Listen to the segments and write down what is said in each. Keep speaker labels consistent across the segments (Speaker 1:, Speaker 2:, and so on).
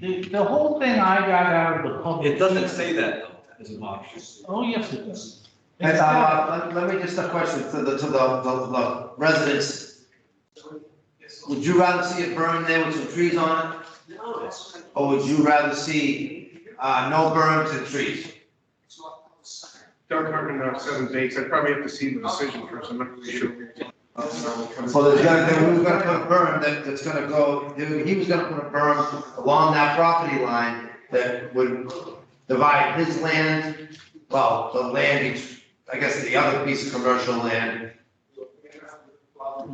Speaker 1: The, the whole thing I got out of the public.
Speaker 2: It doesn't say that though, as an option.
Speaker 1: Oh, yes, it does.
Speaker 3: And, uh, let, let me just a question to the, to the, the- the residents. Would you rather see it burned there with some trees on it,
Speaker 4: No.
Speaker 3: or would you rather see, uh, no berms and trees?
Speaker 5: Doug Hartman, uh, seven dates, I probably have to see the decision first, I'm not really sure.
Speaker 3: So there's gonna, there was gonna put a berm that, that's gonna go, there- he was gonna put a berm along that property line that would divide his land, well, the land, each- I guess the other piece of commercial land.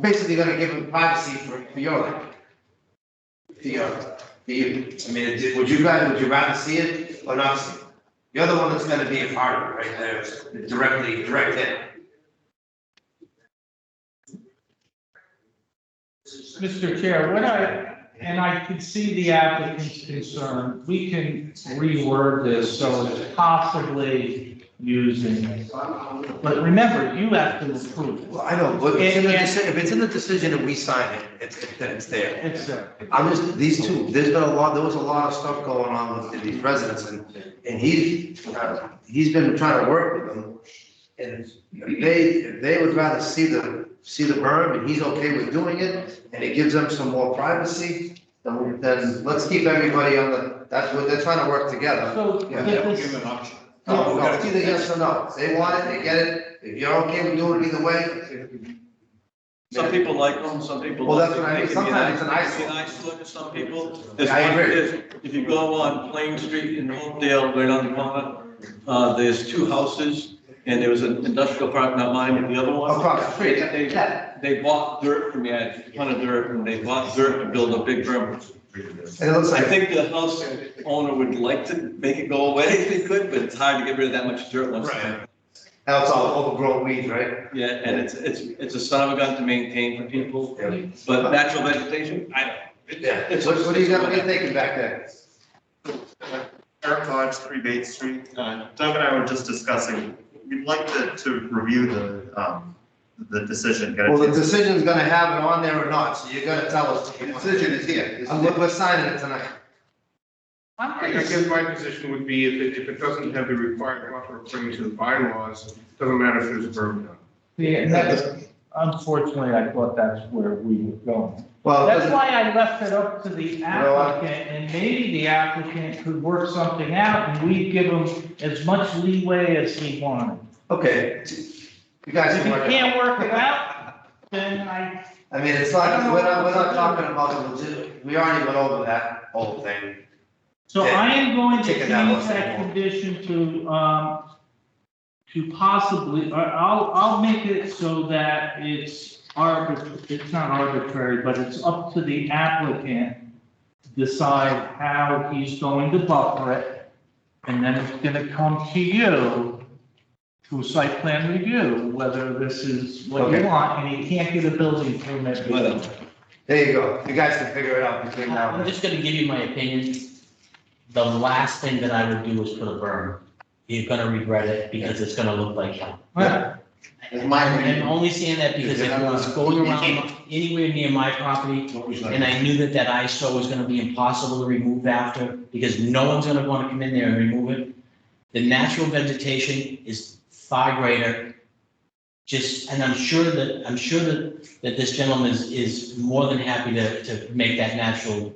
Speaker 3: Basically gonna give him privacy for, for your land. For your, for you, I mean, it- would you guys, would you rather see it or not see it? You're the one that's gonna be a part of it right there, directly, direct hit.
Speaker 1: Mr. Chair, what I, and I can see the applicant's concern, we can reword this so it's possibly using. it. But remember, you have to approve
Speaker 3: Well, I know, but it's in the
Speaker 1: And- and-
Speaker 3: decision, if it's in the decision and we sign it, it's, then it's
Speaker 1: it.
Speaker 3: there.
Speaker 1: It's there.
Speaker 3: I'm just, these two, there's been a lot, there was a lot of stuff going on with these residents and, and he, uh, he's been trying to work with them. And they, they would rather see the, see the berm and he's okay with doing it and it gives them some more privacy. Then, then let's keep everybody on the, that's what, they're trying to work together.
Speaker 1: So,
Speaker 3: Yeah,
Speaker 1: but this-
Speaker 3: No, no, it's either yes or no. If They want it, they get it. If you're okay with doing it either way,
Speaker 2: Some people like them, some people.
Speaker 3: Well, that's
Speaker 2: don't.
Speaker 3: what I mean.
Speaker 2: They can be
Speaker 3: Sometimes it's an
Speaker 2: They can be nice to some people. There's
Speaker 3: Yeah, I
Speaker 2: one,
Speaker 3: agree.
Speaker 2: there's- if you go on Plain Street in Hopedale, right on the corner, uh, there's two houses, and there was an industrial park, not mine, but the other one.
Speaker 3: across the street.
Speaker 2: They- they- They bought dirt from me, I had a ton of dirt, and they bought dirt to build a big berm.
Speaker 3: And it looks
Speaker 2: I
Speaker 3: like,
Speaker 2: think the house owner would like to make it go away if they could, but it's hard to get rid of that much dirt once.
Speaker 3: Right. now it's all overgrown weeds, right?
Speaker 2: Yeah, and it's, it's, it's a son of a gun to maintain for people, but natural vegetation, I don't.
Speaker 3: Yeah. What, what do you got, what are you thinking back there?
Speaker 6: Eric Lodge, Three Bay Street. Uh, Doug and I were just discussing, we'd like to, to review the, um, the decision. get a
Speaker 3: Well, the
Speaker 6: chance-
Speaker 3: decision's gonna have it on there or not, so you're gonna tell us. The decision is here. I'm, we're signing it tonight.
Speaker 5: I guess my position would be if it, if it doesn't have the required buffer according to the bylaws, doesn't matter if there's a berm down.
Speaker 1: Yeah, and that's- Unfortunately, I thought that's where we were going.
Speaker 3: Well, it
Speaker 1: That's
Speaker 3: doesn't-
Speaker 1: why I left it up to the
Speaker 3: know what?
Speaker 1: applicant, and maybe the applicant could work something out, and we'd give him as much leeway as he wanted.
Speaker 3: okay. You guys
Speaker 1: If
Speaker 3: can
Speaker 1: he
Speaker 3: work it out.
Speaker 1: can't work it out, then I,
Speaker 3: I mean, it's not, we're not, we're not talking about the legit, we already went over that whole thing.
Speaker 1: so
Speaker 3: Yeah.
Speaker 1: I am going to
Speaker 3: Chicken
Speaker 1: change
Speaker 3: that wasn't
Speaker 1: that
Speaker 3: warm.
Speaker 1: condition to, um, to possibly, I- I'll, I'll make it so that it's arbit, it's not arbitrary, but it's up to the applicant to decide how he's going to buffer it, and then it's gonna come to you to site plan review, whether this is what you
Speaker 3: Okay.
Speaker 1: want, and you can't get a building permit.
Speaker 2: Well,
Speaker 3: There you go. You guys can figure it out between now
Speaker 7: I'm
Speaker 3: and.
Speaker 7: just gonna give you my opinion. The last thing that I would do is put a berm. You're gonna regret it because it's gonna look like hell.
Speaker 1: Yeah.
Speaker 6: It's my opinion.
Speaker 7: I'm only saying that because if it was going around anywhere near my property, and I knew that that ISO was gonna be impossible to remove after, because no one's gonna wanna come in there and remove it. The natural vegetation is far greater. Just, and I'm sure that, I'm sure that, that this gentleman is, is more than happy to, to make that natural.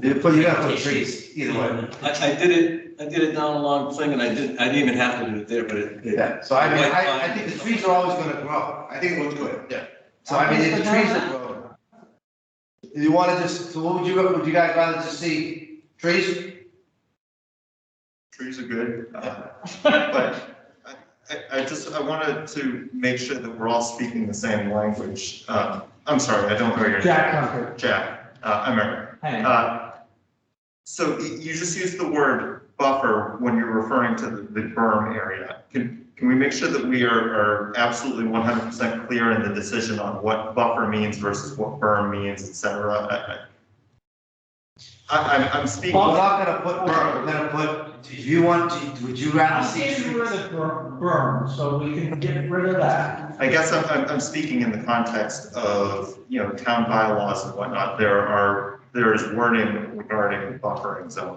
Speaker 3: You put, you gotta put trees, either way.
Speaker 2: I, I did it, I did it down along thing, and I didn't, I didn't even have to do it there, but it. it-
Speaker 3: Yeah, so I mean, I, I think the trees are always gonna grow, I think it looks good, yeah. So I mean, if the trees are growing. You wanna just, so what would you, would you guys rather just see trees?
Speaker 6: Trees are good. uh, But I, I- I just, I wanted to make sure that we're all speaking the same language. Uh, I'm sorry, I don't know your name.
Speaker 1: Jack Hunter,
Speaker 6: Jack, uh, I'm Eric.
Speaker 1: hang on.
Speaker 6: Uh, So y- you just used the word buffer when you're referring to the the berm area. Can, can we make sure that we are, are absolutely one hundred percent clear in the decision on what buffer means versus what berm means, et cetera? I- I, I, I'm, I'm speaking.
Speaker 3: We're not gonna put berm, we're gonna put, do you want, to- would you rather
Speaker 1: I'm
Speaker 3: see
Speaker 1: getting
Speaker 3: trees?
Speaker 1: rid of bur- berm, so we can get rid of that.
Speaker 6: I guess I'm, I'm, I'm speaking in the context of, you know, town bylaws and whatnot. There are, there is wording regarding buffering zones.